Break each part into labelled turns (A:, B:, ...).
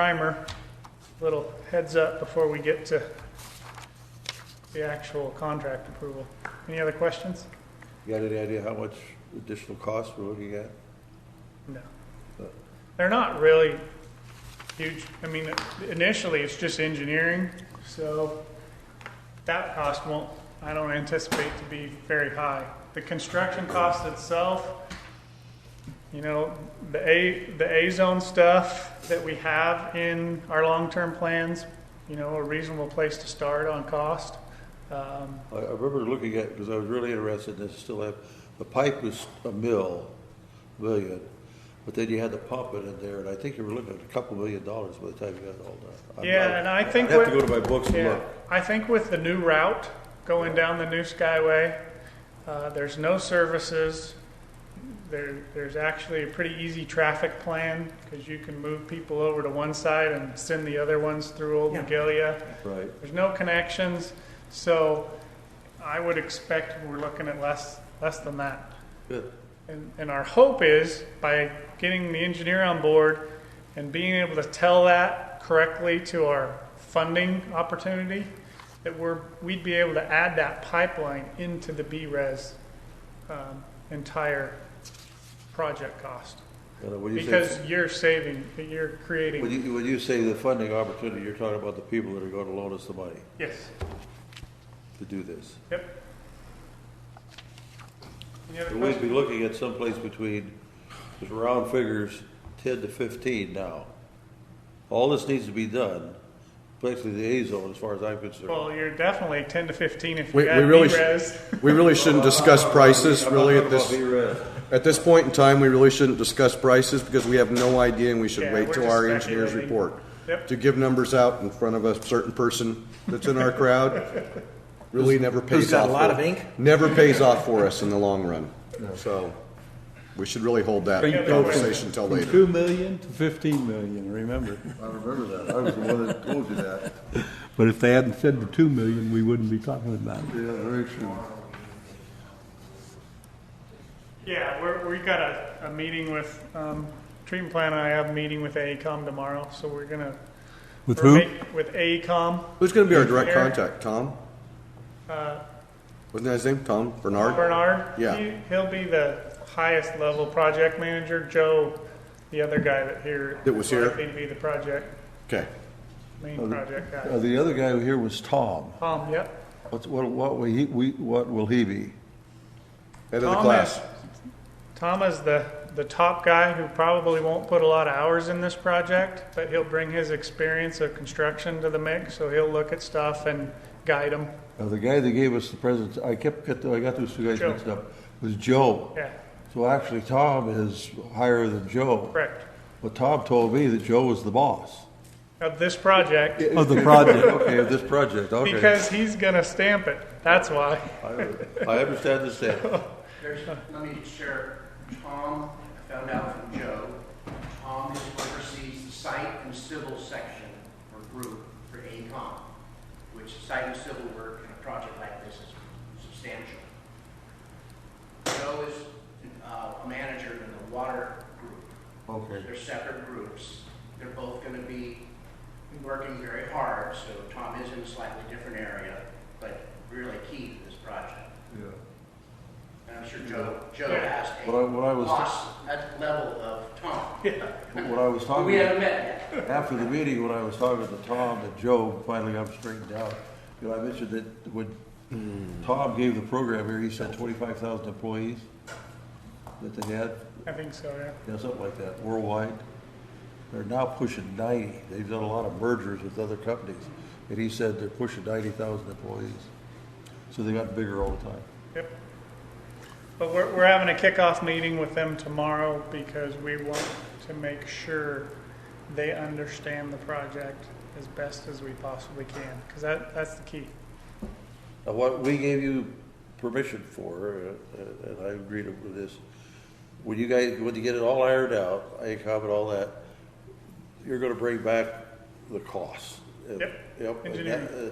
A: primer, little heads up before we get to the actual contract approval. Any other questions?
B: You got any idea how much additional cost we're looking at?
A: No. They're not really huge. I mean, initially, it's just engineering, so that cost won't, I don't anticipate to be very high. The construction cost itself, you know, the A, the A-zone stuff that we have in our long-term plans, you know, a reasonable place to start on cost. Um,
B: I, I remember looking at, because I was really interested in this, still have, the pipe was a mill, million, but then you had to pump it in there, and I think you were looking at a couple million dollars by the time you got it all done. I'm
A: Yeah,
B: not-
A: and I think
B: I'd have to go
A: what-
B: to my books and
A: Yeah,
B: look.
A: I think with the new route going down the new Skyway, uh, there's no services. There, there's actually a pretty easy traffic plan because you can move people over to one side and send the other ones through Old
C: Yeah.
A: Magalia.
B: Right,
A: There's no connections, so I would expect we're looking at less, less than that.
B: good.
A: And, and our hope is by getting the engineer on board and being able to tell that correctly to our funding opportunity, that we're, we'd be able to add that pipeline into the BRES um, entire project cost.
B: And when you
A: Because
B: say,
A: you're saving, you're
B: when
A: creating,
B: you, when you say the funding opportunity, you're talking about the people that are gonna loan us the money
A: yes,
B: to do this.
A: yep. Any other
B: So We'd be
A: questions?
B: looking at someplace between, just round figures, ten to fifteen now. All this needs to be done, basically the A zone, as far as I'm concerned.
A: Well, you're definitely ten to fifteen if
D: We-
A: you
D: we
A: add
D: really sh-
A: BRES.
D: We really shouldn't discuss prices
B: I'm not
D: really at
B: talking about
D: this,
B: B-res.
D: at this point in time, we really shouldn't discuss prices because we have no idea and we
A: Yeah,
D: should wait
A: we're
D: till
A: just
D: our engineers
A: speculating.
D: report.
A: Yep.
D: To give numbers out in front of a certain person that's in our crowd really never pays off.
C: who's got a lot
D: for-
C: of ink?
D: Never pays off for us in the long run. So we should really hold that
A: you go from-
D: conversation till
E: From
D: later.
E: two million to fifteen million, remember?
F: I remember that. I was the one that told you that.
E: But if they hadn't said the two million, we wouldn't be talking about it.
F: Yeah, very true.
A: Yeah, we're, we got a, a meeting with, um, treatment plan, and I have a E meeting with AECom tomorrow, so we're gonna.
E: With
A: we're
E: who?
A: make- With E AECom,
D: Who's gonna be our direct
A: Eric.
D: contact? Tom? Wasn't that his name? Tom Bernard?
A: Uh, Bernard.
D: Yeah.
A: he- He'll be the highest level project manager, Joe, the other guy that here.
D: That was here?
A: Likely to be the project,
D: Okay.
A: main project
F: Uh,
A: guy.
F: the other guy here was Tom.
A: Tom, yep.
F: What's, what, what, will he, we, what will he be?
D: Head of the
A: Tom
D: class.
A: is- Tom is the, the top guy who probably won't put a lot of hours in this project, but he'll bring his experience of construction to the mix, so he'll look at stuff and guide them,
F: Uh, the guy that gave us the present, I kept, get- I got those two guys
A: Joe.
F: mixed up, was Joe.
A: yeah,
F: So actually, Tom is higher than Joe.
A: correct.
F: But Tom told me that Joe was the boss.
A: of this project
E: Of the project,
F: Okay, of this project, okay.
A: because he's gonna stamp it. That's why.
B: I understand this, Sam.
G: There's, let me share, Tom, I found out from Joe, Tom is oversees the site and civil section or group for AECom, which site and civil work in a project like this is substantial. Joe is uh, a manager in the water group.
F: Okay.
G: They're separate groups. They're both going to be working very hard, so Tom is in a slightly different area, but really key to this project.
F: Yeah.
G: And I'm sure Joe, Joe asked a
F: What I- what I was-
G: boss at level of Tom.
F: But What I was
G: But we
F: talking
G: haven't
F: about,
G: met yet.
F: after the meeting, when I was talking to Tom and Joe, finally got them straightened out, you know, I mentioned that when Tom gave the program here, he said twenty-five thousand employees that they had,
A: I think so, yeah.
F: you know, something like that, worldwide. They're now pushing ninety. They've done a lot of mergers with other companies, and he said they're pushing ninety thousand employees. So they got bigger all the time.
A: Yep. But we're, we're having a kickoff meeting with them tomorrow because we want to make sure they understand the project as best as we possibly can, because that, that's the key.
B: Now, what we gave you permission for, uh, uh, and I agreed with this, when you guys, when you get it all ironed out, ACOM and all that, you're gonna bring back the costs. And-
A: Yep.
B: Yep. and that- uh,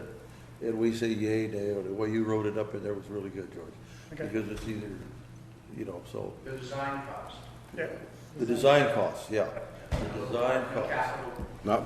B: And we say yay, nay, or the way you wrote it up in there was really good, George.
A: Okay.
B: Because it's either, you know, so,
G: The design cost,
A: Yeah.
B: the design costs, yeah, the design
G: the
B: costs.
G: capital
D: Not